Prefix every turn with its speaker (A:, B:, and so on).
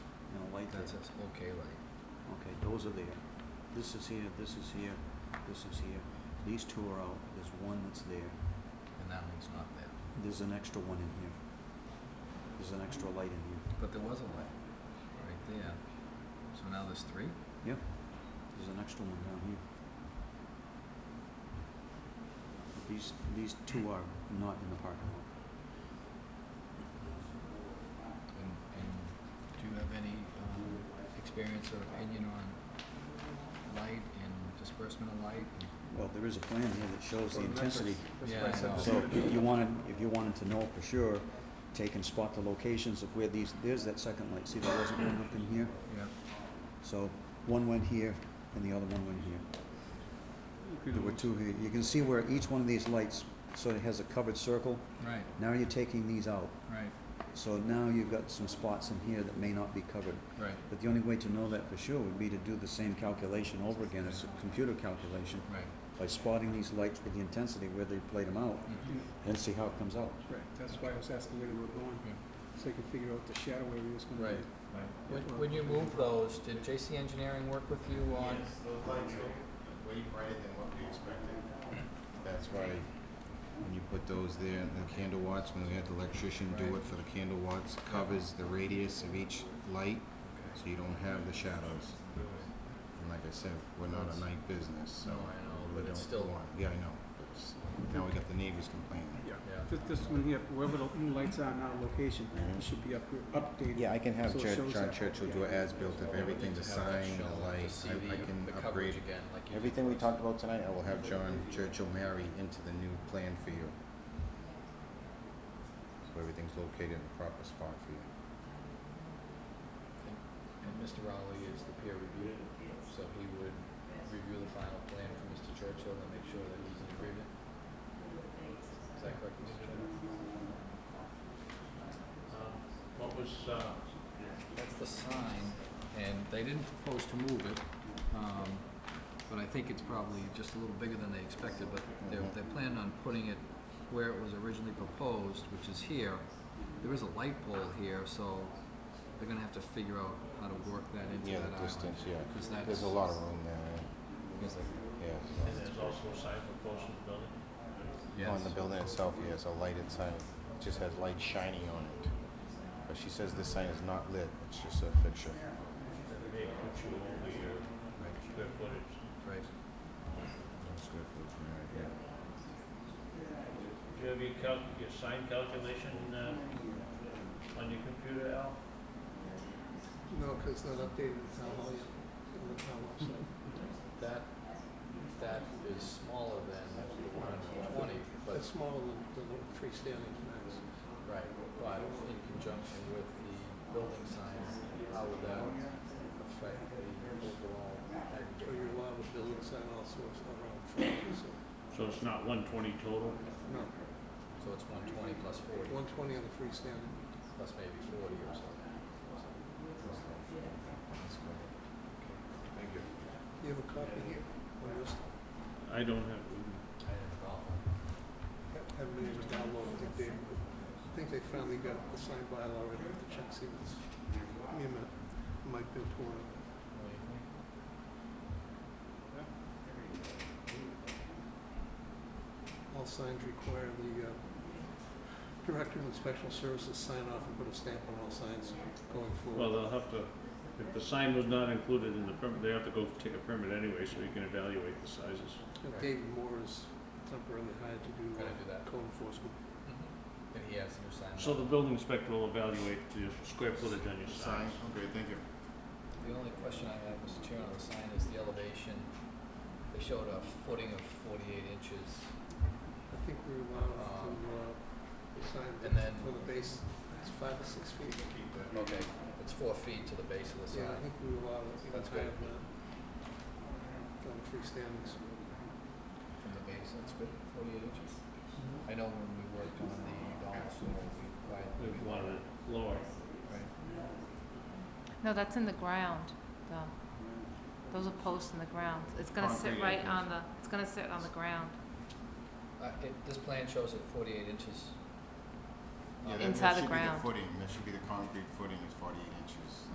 A: that says okay light.
B: Okay, those are there. This is here, this is here, this is here. These two are out, there's one that's there,
A: And that one's not there.
B: there's an extra one in here. There's an extra light in here,
A: But there was a light right there. So now there's three?
B: there's an extra one down here. These, these two are not in the parking lot.
A: And, and do you have any um, experience or opinion on light and disbursement of light?
B: Well, there is a plan here that shows the intensity.
A: That's what I said.
B: So if you- you wanted, if you wanted to know for sure, take and spot the locations of where these, there's that second light. See, there wasn't one up in here?
A: Yeah.
B: So one went here and the other one went here. There were two here. You can see where each one of these lights sort of has a covered circle.
A: Right,
B: Now you're taking these out.
A: right,
B: So now you've got some spots in here that may not be covered.
A: right,
B: But the only way to know that for sure would be to do the same calculation over again. It's a computer calculation
A: right.
B: by spotting these lights with the intensity where they played them out
A: Mhm.
C: Yeah,
B: and see how it comes out.
C: Right, that's why I was asking where they were going,
A: Yeah.
C: so you can figure out the shadow area it's gonna be.
A: Right. When, when you move those, did JC Engineering work with you on?
D: Yes, those lights are way brighter than what we expected. That's why when you put those there, the candle watts, when we had the electrician do
A: Right.
D: it for the candle watts, covers the radius of each light, so you don't have the shadows. And like I said, we're not a night business, so.
A: No, I know,
D: we
A: but it's
D: don't
A: still-
D: want- Yeah, I know, but it's- now we got the neighbors complaining.
C: Yeah,
A: Yeah.
C: This, this one here, wherever the new lights are now, location,
B: Mm-hmm.
C: it should be up, updated.
D: Yeah, I can have
C: So it
D: Chur-
C: shows
D: John
C: that.
D: Churchill do an as-built of everything, the
A: To have that
D: sign,
A: shown,
D: the light,
A: To see
D: I- I can
A: the, the coverage
D: upgrade
A: again, like you did.
D: Everything we talked about tonight, I will have John Churchill marry into the new plan for you. So everything's located in the proper spot for you.
A: And Mr. Rowley is the peer reviewer, so he would review the final plan for Mr. Churchill and make sure that he's in agreement. Is that correct, Mr. Chairman?
E: Um, What was, uh,
A: That's the sign, and they didn't propose to move it, um, but I think it's probably just a little bigger than they expected, but they're,
D: Mhm.
A: they're planning on putting it where it was originally proposed, which is here. There is a light pole here, so they're gonna have to figure out how to work that into
D: Yeah,
A: that island.
D: the distance, yeah.
A: Because that's.
D: There's a lot of room there,
A: because they-
D: yeah.
E: and there's also a sign for close to the building?
D: yeah.
A: Yes.
D: On the building itself, yeah, it's a lighted sign. It just has light shining on it. But she says this sign is not lit, it's just a fixture.
E: They put you over your square footage.
A: Right.
D: That's good for the community, yeah.
E: Do you have your calc, your sign calculation, uh, on your computer, Al?
C: No, 'cause it's not updated, it's not all yet, on the town website.
A: That, that is smaller than the one on twenty, but,
C: It's smaller than, than the freestanding max.
A: right, but in conjunction with the building signs, how would that affect the overall
C: So
A: aggregate?
C: you're allowed to build inside all sorts around forty, so,
E: So it's not one twenty total?
C: no,
A: So it's one twenty plus forty,
C: one twenty on the freestanding.
A: plus maybe forty or something.
D: That's good.
A: Thank you.
C: You have a copy here, or just,
E: I don't have,
A: I didn't know.
C: ha- haven't been able to download it, I think they, I think they finally got the signed bylaw ready with the check sequence. Give me a minute, I might be able to, uh, All signs require the uh, Director of Inspection Services sign off and put a stamp on all signs going forward.
E: well, they'll have to, if the sign was not included in the permit, they have to go take a permit anyway, so you can evaluate the sizes.
C: And David Moore is temporarily hired to do
A: Gonna do that.
C: uh, code enforcement.
A: And he has new sign.
E: So the building inspector will evaluate the square footage on your
D: Sign,
E: signs.
D: okay, thank you.
A: The only question I have, Mr. Chairman, on the sign is the elevation. They showed a footing of forty-eight inches.
C: I think we were allowed
A: Um,
C: to uh, sign
A: and then-
C: for the base, it's five or six feet.
A: Okay, it's four feet to the base of the
C: Yeah,
A: sign.
C: I think we were allowed to even
A: That's good.
C: higher than that. Done freestanding. so-
A: From the base, that's good, forty-eight inches. I know when we worked on the Donald Sewell, we quite,
E: We
A: we
E: wanted
A: wanted,
E: it lower.
A: right?
F: No, that's in the ground, though. Those are posts in the ground. It's gonna sit
D: Concrete,
F: right
D: yeah.
F: on the, it's gonna sit on the ground,
A: Uh, it, this plan shows it forty-eight inches.
D: Yeah,
A: Um,
D: that- that
F: Inside the
D: should be
F: ground.
D: Footing, that should be the concrete footing is forty-eight inches.